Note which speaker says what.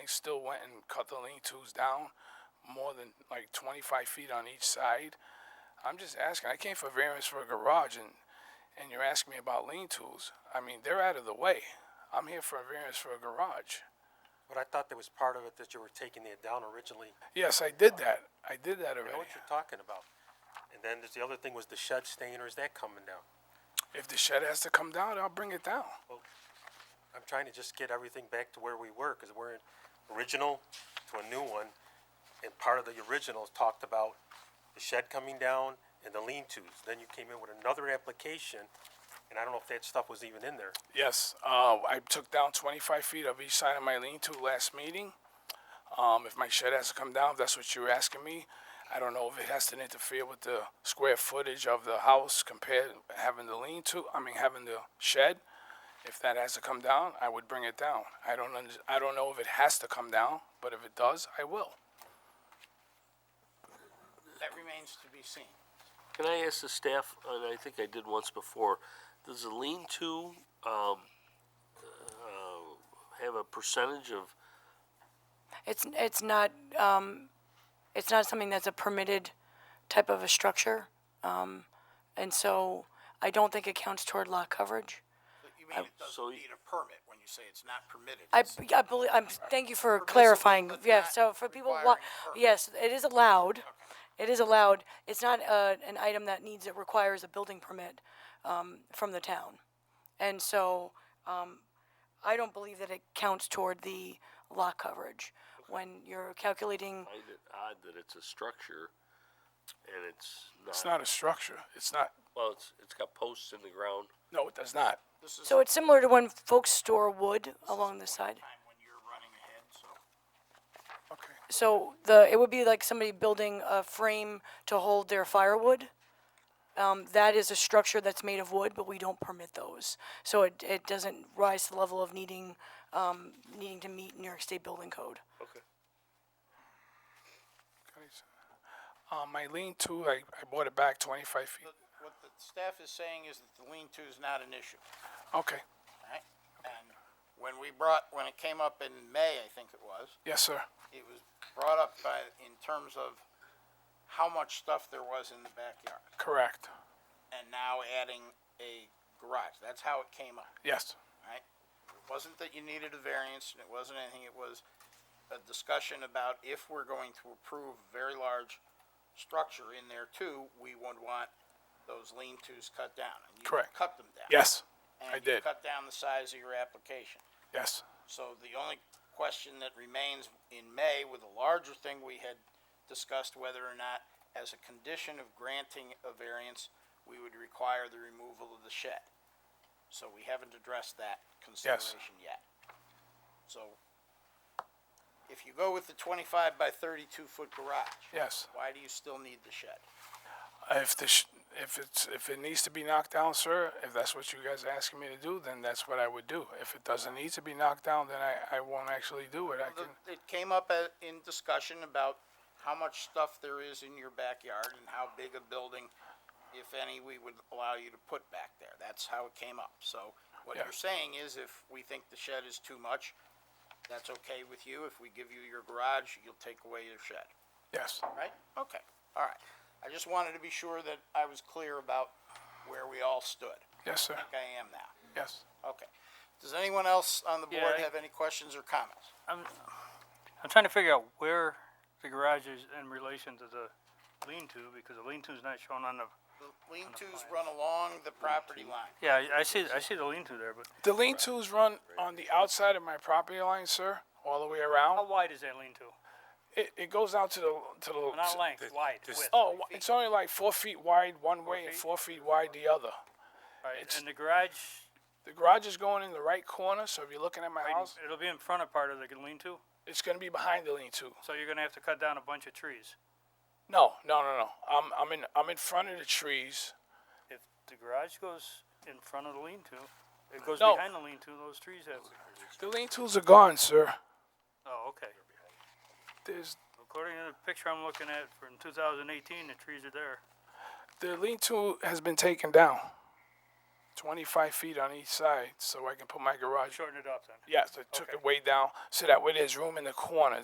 Speaker 1: still went and cut the lean twos down more than like 25 feet on each side. I'm just asking. I came for variance for a garage, and and you're asking me about lean tools. I mean, they're out of the way. I'm here for a variance for a garage.
Speaker 2: But I thought there was part of it that you were taking it down originally.
Speaker 1: Yes, I did that. I did that
Speaker 2: I know
Speaker 1: already.
Speaker 2: what you're talking about. And then there's the other thing was the shed stain, or is that coming down?
Speaker 1: If the shed has to come down, I'll bring it down.
Speaker 2: I'm trying to just get everything back to where we were, because we're in original to a new one. And part of the original talked about the shed coming down and the lean-tos. Then you came in with another application, and I don't know if that stuff was even in there.
Speaker 1: Yes, uh, I took down 25 feet of each side of my lean-to last meeting. Um, if my shed has to come down, if that's what you're asking me, I don't know if it has to interfere with the square footage of the house compared having the lean-to. I mean, having the shed. If that has to come down, I would bring it down. I don't. Under, I don't know if it has to come down, but if it does, I will.
Speaker 3: That remains to be seen.
Speaker 4: Can I ask the staff, and I think I did once before, does the lean-to, um, uh, have a percentage of,
Speaker 5: It's, it's not, um, it's not something that's a permitted type of a structure. Um, and so I don't think it counts toward lot coverage.
Speaker 3: But You mean it
Speaker 4: so
Speaker 3: doesn't
Speaker 4: y-
Speaker 3: need a permit when you say it's not permitted?
Speaker 5: I,
Speaker 3: It's-
Speaker 5: I believe, I'm, thank you for clarifying.
Speaker 3: but
Speaker 5: Yeah,
Speaker 3: not
Speaker 5: so for people, wa-
Speaker 3: requiring a permit.
Speaker 5: yes, it is allowed. It is allowed. It's not, uh, an item that needs, it requires a building permit, um, from the town. And so, um, I don't believe that it counts toward the lot coverage when you're calculating.
Speaker 4: I find it odd that it's a structure and it's not.
Speaker 1: It's not a structure. It's not.
Speaker 4: Well, it's, it's got posts in the ground.
Speaker 1: No, it does not.
Speaker 3: This is
Speaker 5: So it's similar to when folks store wood along the side.
Speaker 3: time when you're running ahead, so.
Speaker 1: Okay.
Speaker 5: So the, it would be like somebody building a frame to hold their firewood. Um, that is a structure that's made of wood, but we don't permit those. So it, it doesn't rise to the level of needing, um, needing to meet New York State Building Code.
Speaker 4: Okay.
Speaker 1: Guys, Uh, my lean-to, I, I bought it back 25 feet.
Speaker 3: But What the staff is saying is that the lean-to is not an issue,
Speaker 1: Okay.
Speaker 3: right? And when we brought, when it came up in May, I think it was,
Speaker 1: Yes, sir.
Speaker 3: it was brought up by, in terms of how much stuff there was in the backyard,
Speaker 1: Correct.
Speaker 3: and now adding a garage. That's how it came up.
Speaker 1: Yes.
Speaker 3: right? It wasn't that you needed a variance, and it wasn't anything, it was a discussion about if we're going to approve a very large structure in there too, we would want those lean-tos cut down. and you
Speaker 1: Correct.
Speaker 3: Cut them down.
Speaker 1: Yes. I
Speaker 3: And you
Speaker 1: did.
Speaker 3: cut down the size of your application.
Speaker 1: Yes.
Speaker 3: So the only question that remains in May with a larger thing, we had discussed whether or not, as a condition of granting a variance, we would require the removal of the shed. So we haven't addressed that consideration yet. So if you go with the twenty-five by thirty-two foot garage.
Speaker 1: Yes.
Speaker 3: Why do you still need the shed?
Speaker 1: If the sh- if it's if it needs to be knocked down, sir, if that's what you guys are asking me to do, then that's what I would do. If it doesn't need to be knocked down, then I, I won't actually do it. I can.
Speaker 3: It came up at- in discussion about how much stuff there is in your backyard and how big a building, if any, we would allow you to put back there. That's how it came up. So what
Speaker 1: Yeah.
Speaker 3: you're saying is if we think the shed is too much, that's okay with you. If we give you your garage, you'll take away your shed,
Speaker 1: Yes.
Speaker 3: right? Okay, all right. I just wanted to be sure that I was clear about where we all stood.
Speaker 1: Yes, sir.
Speaker 3: I think I am now.
Speaker 1: Yes.
Speaker 3: Okay. Does anyone else on the
Speaker 6: Yeah,
Speaker 3: board
Speaker 6: I-
Speaker 3: have any questions or comments?
Speaker 6: I'm, I'm trying to figure out where the garage is in relation to the lean-to, because the lean-to is not shown on the,
Speaker 3: The lean-tos run along the property line.
Speaker 6: yeah, I- I see, I see the lean-to there, but
Speaker 1: The lean-tos run on the outside of my property line, sir, all the way
Speaker 6: how
Speaker 1: around.
Speaker 6: wide is that lean-to?
Speaker 1: It, it goes out to the to the.
Speaker 6: Not length, wide, width,
Speaker 1: Oh, it's only like four feet wide one way and
Speaker 6: feet?
Speaker 1: four feet wide the other.
Speaker 6: right, and the garage,
Speaker 1: The garage is going in the right corner, so if you're looking at my
Speaker 6: right,
Speaker 1: house,
Speaker 6: it'll be in front of part of the lean-to,
Speaker 1: it's going to be behind the lean-to.
Speaker 6: so you're gonna have to cut down a bunch of trees
Speaker 1: No, no, no, no. I'm I'm in I'm in front of the trees.
Speaker 6: if the garage goes in front of the lean-to. It goes
Speaker 1: No.
Speaker 6: behind the lean-to, those trees have,
Speaker 1: The lean tools are gone, sir.
Speaker 6: oh, okay.
Speaker 1: There's
Speaker 6: According to the picture I'm looking at from two thousand eighteen, the trees are there.
Speaker 1: the lean tool has been taken down. 25 feet on each side so I can put my garage.
Speaker 6: Shorten it up then.
Speaker 1: Yes, I took it way down so that way there's room in the corner